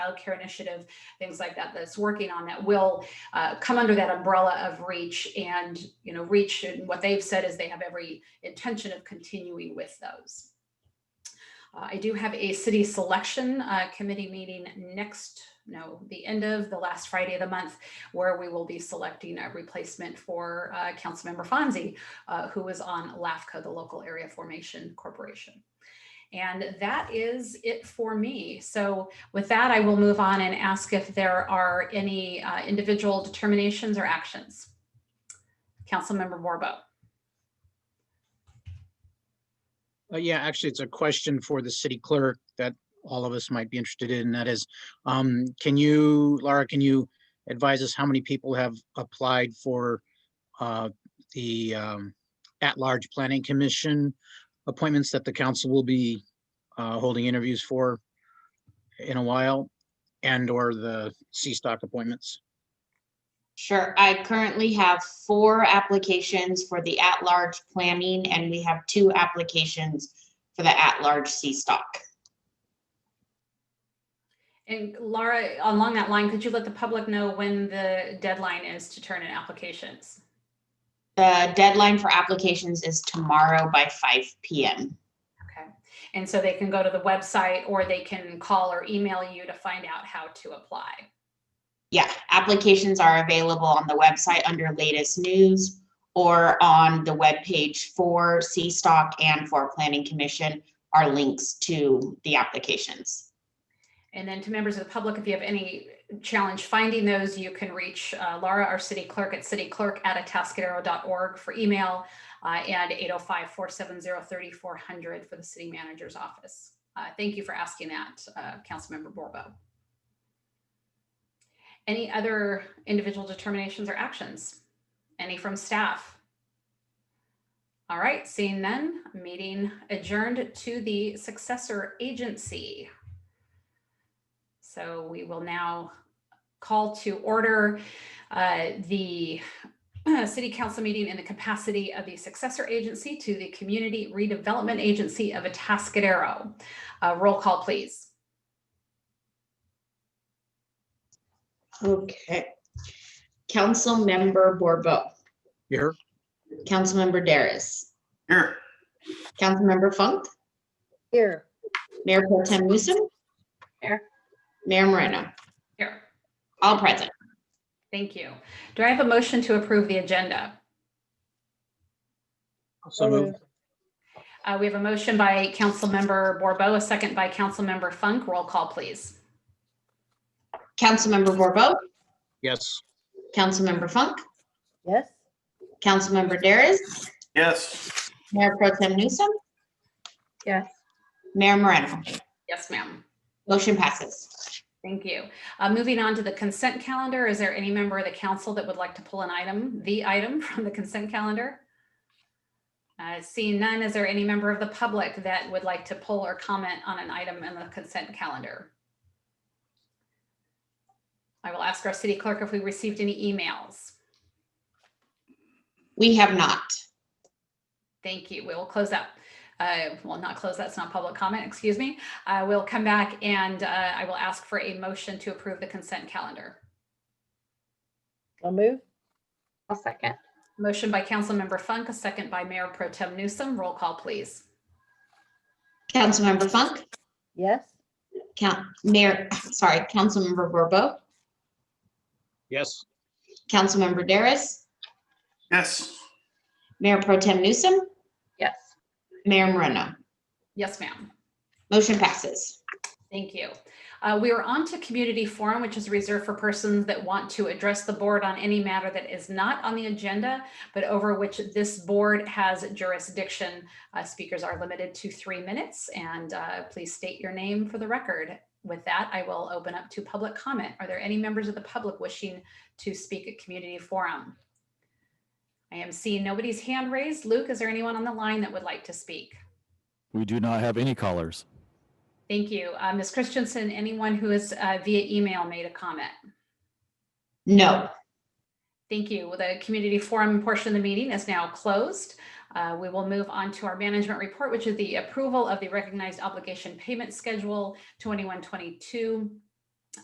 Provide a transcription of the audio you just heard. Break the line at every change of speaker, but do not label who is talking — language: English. childcare initiative, things like that, that's working on that will uh, come under that umbrella of reach and, you know, reach and what they've said is they have every intention of continuing with those. Uh, I do have a city selection uh, committee meeting next, no, the end of the last Friday of the month, where we will be selecting a replacement for uh, Councilmember Fonzie, uh, who is on LAFCO, the Local Area Formation Corporation. And that is it for me. So with that, I will move on and ask if there are any uh, individual determinations or actions. Councilmember Borbo.
Uh, yeah, actually, it's a question for the city clerk that all of us might be interested in. and That is, um, can you, Laura, can you advise us how many people have applied for, uh, the, um, at-large planning commission appointments that the council will be, uh, holding interviews for in a while? And/or the C-Stock appointments?
Sure. I currently have four applications for the at-large planning, and we have two applications for the at-large C-Stock.
And Laura, along that line, could you let the public know when the deadline is to turn in applications?
The deadline for applications is tomorrow by five PM.
Okay. And so they can go to the website or they can call or email you to find out how to apply.
Yeah, applications are available on the website under latest news or on the webpage for C-Stock and for Planning Commission are links to the applications.
And then to members of the public, if you have any challenge finding those, you can reach uh, Laura, our city clerk at cityclerk@atascadero.org for email uh, and 805-470-3400 for the city manager's office. Uh, Thank you for asking that, uh, Councilmember Borbo. Any other individual determinations or actions? Any from staff? All right, seeing none, meeting adjourned to the successor agency. So we will now call to order uh, the uh, city council meeting in the capacity of the successor agency to the Community Redevelopment Agency of Atascadero. Uh, Roll call, please.
Okay. Councilmember Borbo.
You hear?
Councilmember Daris.
Here.
Councilmember Funk,
Here.
Mayor Pro Tem Newsom.
Here.
Mayor Moreno,
Here,
all present.
thank you. Do I have a motion to approve the agenda?
So moved.
Uh, We have a motion by Councilmember Borbo, a second by Councilmember Funk. Roll call, please.
Councilmember Borbo,
Yes.
Councilmember Funk,
Yes?
Councilmember Daris,
Yes.
Mayor Pro Tem Newsom.
Yes.
Mayor Moreno,
Yes, ma'am.
motion passes.
Thank you. Uh, Moving on to the consent calendar, is there any member of the council that would like to pull an item, the item from the consent calendar? Uh, Seeing none, is there any member of the public that would like to pull or comment on an item in the consent calendar? I will ask our city clerk if we received any emails.
We have not.
Thank you. We will close that. Uh, well, not close, that's not public comment, excuse me. Uh, we'll come back and uh, I will ask for a motion to approve the consent calendar.
I'll move.
I'll second.
Motion by Councilmember Funk, a second by Mayor Pro Tem Newsom. Roll call, please.
Councilmember Funk,
Yes?
Count, Mayor, sorry, Councilmember Borbo,
Yes.
Councilmember Daris,
Yes.
Mayor Pro Tem Newsom,
Yes.
Mayor Moreno,
Yes, ma'am.
motion passes.
Thank you. Uh, We are on to community forum, which is reserved for persons that want to address the board on any matter that is not on the agenda, but over which this board has jurisdiction. Uh, Speakers are limited to three minutes, and uh, please state your name for the record. With that, I will open up to public comment. Are there any members of the public wishing to speak at community forum? I am seeing nobody's hand raised. Luke, is there anyone on the line that would like to speak?
We do not have any callers.
Thank you. Uh, Ms. Christensen, anyone who is uh, via email made a comment?
No.
Thank you. Well, The community forum portion of the meeting is now closed. Uh, We will move on to our management report, which is the approval of the recognized obligation payment schedule 2122